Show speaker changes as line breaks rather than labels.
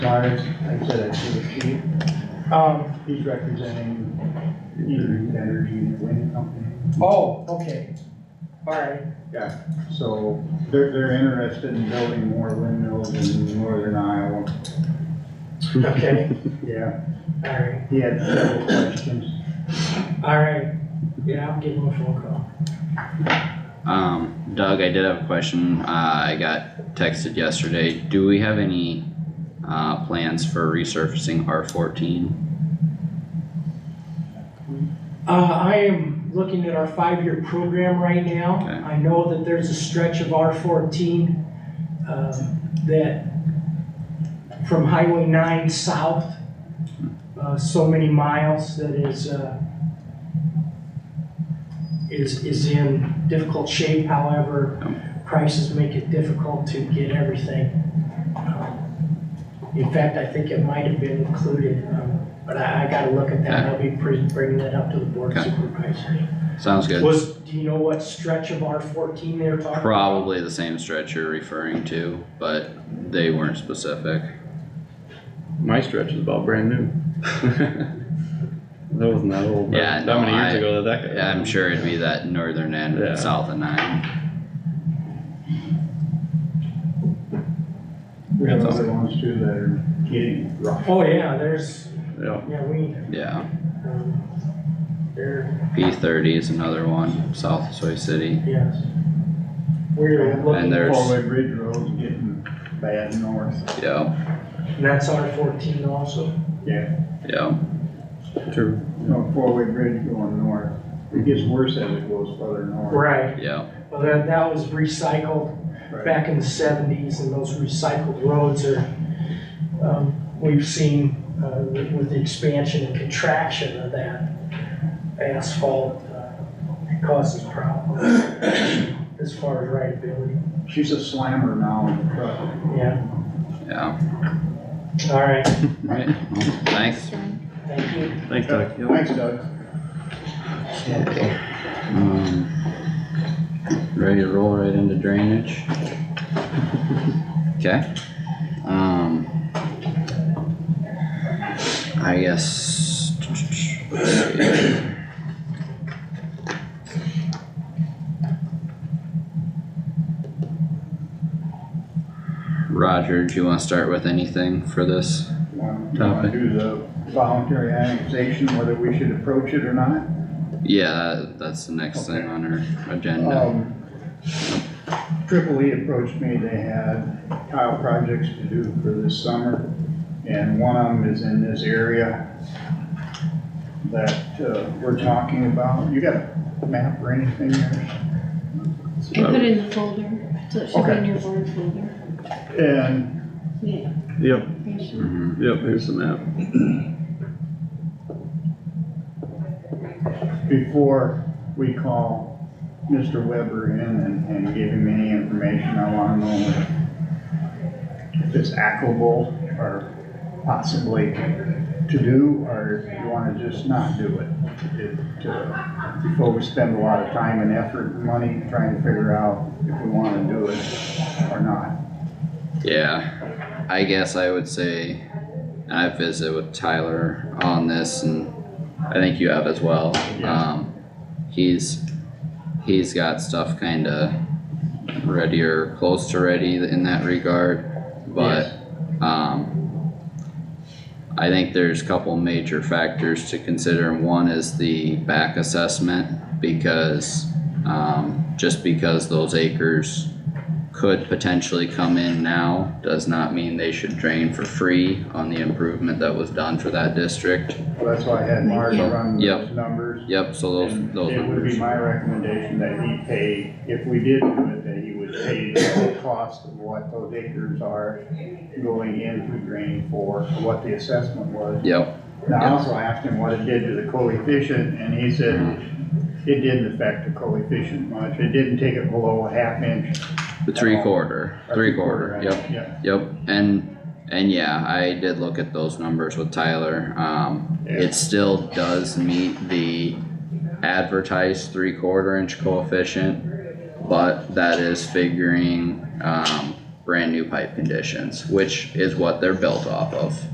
Myers, I said it to the chief,
Um,
he's representing Eaton Energy and Wind Company.
oh, okay, all right,
So they're, they're interested in building more windmills in northern Iowa.
okay,
Yeah,
all right,
he had several questions.
all right, yeah, I'm getting a phone call.
Um, Doug, I did have a question, uh, I got texted yesterday, do we have any, uh, plans for resurfacing R fourteen?
Uh, I am looking at our five-year program right now.
Okay.
I know that there's a stretch of R fourteen, um, that from Highway nine south, uh, so many miles that is, uh, is, is in difficult shape, however, prices make it difficult to get everything. Um, In fact, I think it might have been included, um, but I, I gotta look at that, I'll be pre- bringing that up to the board
Okay.
supervisor.
Sounds good,
Was, do you know what stretch of R fourteen they're talking about?
probably the same stretch you're referring to, but they weren't specific.
My stretch is about brand new. That wasn't that old.
Yeah,
That
no,
many years
I-
ago that that guy.
I'm sure it'd be that northern end,
Yeah.
south of nine,
We have
That's
other ones too that are getting rough.
Oh, yeah, there's,
Yeah,
yeah, we,
yeah,
um, there,
P thirty is another one, south of Soy City,
yes. We're
And
looking,
there's-
Four-way bridge roads getting bad north.
yeah,
and that's R fourteen also.
yeah,
true.
You know, four-way bridge going north. It gets worse as it goes further north.
Right,
yeah,
well, that, that was recycled back in the seventies and those recycled roads are, um, we've seen, uh, with with the expansion and contraction of that asphalt, uh, it causes problems as far as rideability,
She's a slammer now in the truck.
yeah,
yeah,
all right,
right, well, thanks.
thank you.
Thanks, Doug.
Thanks, Doug.
Um, ready to roll right into drainage? Okay, um. I guess. let's see. Roger, do you wanna start with anything for this?
Want to do the voluntary annexation, whether we should approach it or not?
Yeah, that's the next thing on our agenda.
Um, Triple E approached me, they had tile projects to do for this summer, and one of them is in this area that, uh, we're talking about. You got a map or anything there?
I put it in the folder, so it should be in your board folder.
And
Yeah.
Yep,
Mhm.
yep, here's the map.
before we call Mr. Weber in and, and give him any information, I wanna know if it's applicable or possibly to do, or if you wanna just not do it. It, uh, Before we spend a lot of time and effort and money trying to figure out if we wanna do it or not.
Yeah, I guess I would say, and I visited with Tyler on this and I think you have as well.
Yeah.
Um, he's, he's got stuff kinda ready or close to ready in that regard, but, um, I think there's a couple major factors to consider. One is the back assessment because, um, just because those acres could potentially come in now, does not mean they should drain for free on the improvement that was done for that district.
Well, That's why I had Marge run those
Yep.
numbers.
Yep, so those,
And
those
It would be
numbers,
my recommendation that he pay, if we did do it, that he would pay the whole cost of what those acres are going into drain for, what the assessment was.
yep,
And I also asked him what it did to the coefficient, and he said it didn't affect the coefficient much. It didn't take it below a half inch.
the three quarter,
or
three quarter,
inch.
yep, yep, and, and yeah, I did look at those numbers with Tyler, um, it still does meet the advertised three quarter inch coefficient, but that is figuring, um, brand new pipe conditions, which is what they're built off of.